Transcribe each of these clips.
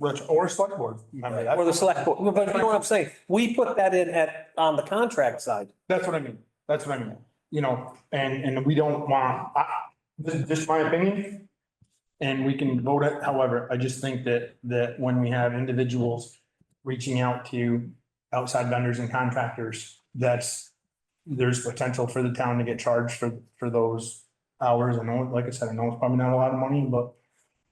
Rich, or select board member. Or the select board, but you know what I'm saying? We put that in at, on the contract side. That's what I mean. That's what I mean. You know, and, and we don't want, I, this is just my opinion. And we can vote it however. I just think that, that when we have individuals reaching out to outside vendors and contractors, that's, there's potential for the town to get charged for, for those hours. I know, like I said, I know it's probably not a lot of money, but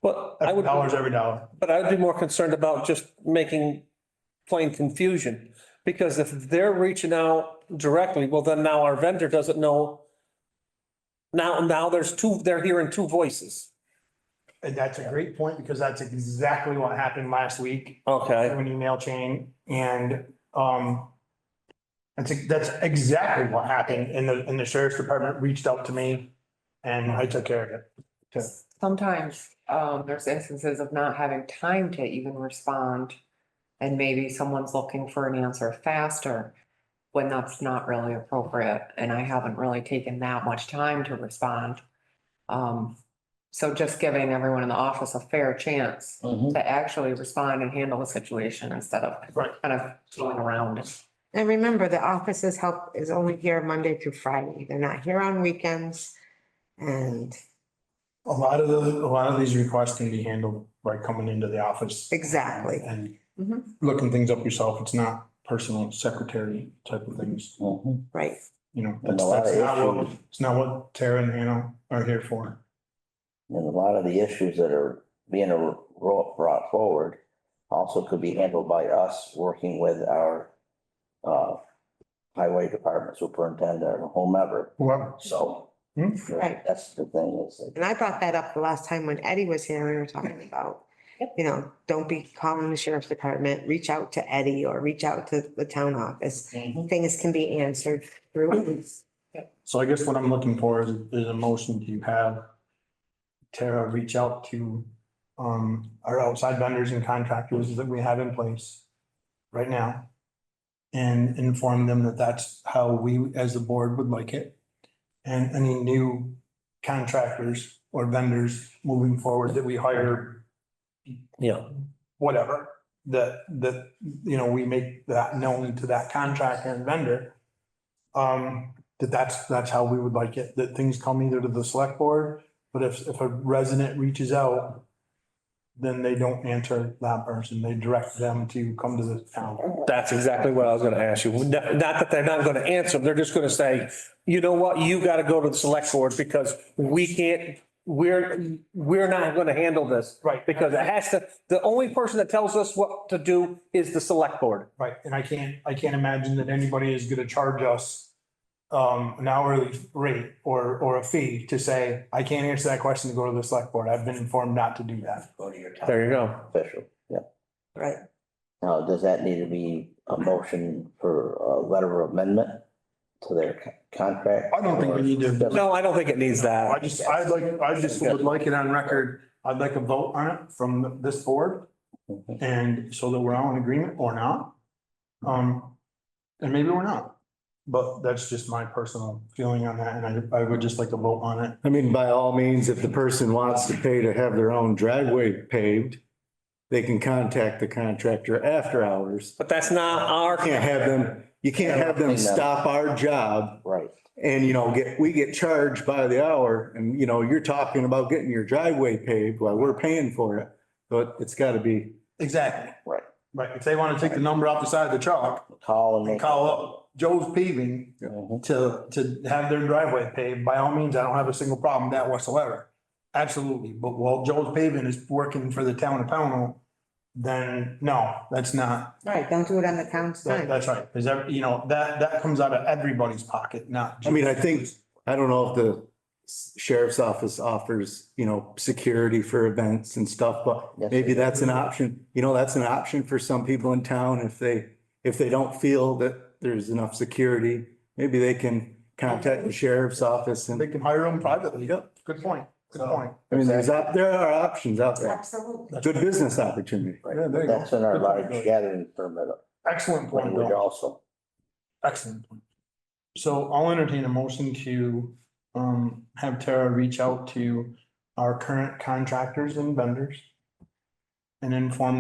But I every would, dollar's every dollar. but I'd be more concerned about just making plain confusion. Because if they're reaching out directly, well, then now our vendor doesn't know. Now, now there's two, they're hearing two voices. And that's a great point because that's exactly what happened last week Okay, through an email chain and, um, that's, that's exactly what happened and the, and the sheriff's department reached out to me and I took care of it. Sometimes, um, there's instances of not having time to even respond. And maybe someone's looking for an answer faster when that's not really appropriate. And I haven't really taken that much time to respond. Um, so just giving everyone in the office a fair chance to actually respond and handle the situation instead of Right. kind of going around it. And remember, the office's help is only here Monday through Friday. They're not here on weekends. And A lot of the, a lot of these requests can be handled by coming into the office. exactly. And Mhm. looking things up yourself. It's not personal secretary type of things, Right. you know. And a lot of That's not what- issues. It's not what Tara and Hannah are here for. And a lot of the issues that are being a- brought forward also could be handled by us working with our uh, highway department superintendent or whomever, Well, so. Hmm. Right. That's the thing is that And I brought that up the last time when Eddie was here, we were talking about, you know, don't be calling the sheriff's department, reach out to Eddie or reach out to the town office. Things can be answered through. So I guess what I'm looking for is, is a motion to have Tara reach out to, um, our outside vendors and contractors that we have in place right now. And inform them that that's how we, as the board, would like it. And any new contractors or vendors moving forward that we hire, yeah. whatever, that, that, you know, we make that known to that contractor and vendor. Um, that that's, that's how we would like it, that things come either to the select board, but if, if a resident reaches out, then they don't answer that person, they direct them to come to the town. That's exactly what I was gonna ask you. Not not that they're not gonna answer, they're just gonna say, you know what, you gotta go to the select board because we can't, we're, we're not gonna handle this. Right. Because it has to, the only person that tells us what to do is the select board. Right, and I can't, I can't imagine that anybody is gonna charge us um, an hourly rate or, or a fee to say, I can't answer that question to go to the select board, I've been informed not to do that. go to your town There you go. official, yeah. Right. Now, does that need to be a motion for a letter of amendment to their co- contract? I don't think we need to- Doesn't- No, I don't think it needs I that. just, I'd like, I just would like it on record, I'd like a vote on it from this board, Mhm. and so that we're all in agreement or not. Um, and maybe we're not, but that's just my personal feeling on that, and I, I would just like to vote on it. I mean, by all means, if the person wants to pay to have their own driveway paved, they can contact the contractor after hours. But that's not You our, Can't have them, you can't have them stop our job Right, and, you know, get, we get charged by the hour and, you know, you're talking about getting your driveway paved while we're paying for it. But it's gotta be, Exactly. Right. Right, if they wanna take the number off the side of the truck, call and. and make- call up Joe's paving Mhm. to, to have their driveway paved, by all means, I don't have a single problem with that whatsoever. Absolutely, but while Joe's paving is working for the town of Pownell, then no, that's not, Right, don't do it on the town's That, time. that's right, because every, you know, that, that comes out of everybody's pocket, not. I mean, I think, I don't know if the sheriff's office offers, you know, security for events and stuff, but Yes, Maybe it does. that's an option, you know, that's an option for some people in town if they, if they don't feel that there's enough security. Maybe they can contact the sheriff's office They and, can hire them privately. Yep. Good point, good point. I mean, there's, op- there are options out there. Absolutely. Good business opportunity. Right. Yeah, there you go. That's in our Good point, large Billy. gathering permit Excellent point, language Bill, also. excellent point. So I'll entertain a motion to, um, have Tara reach out to our current contractors and vendors and inform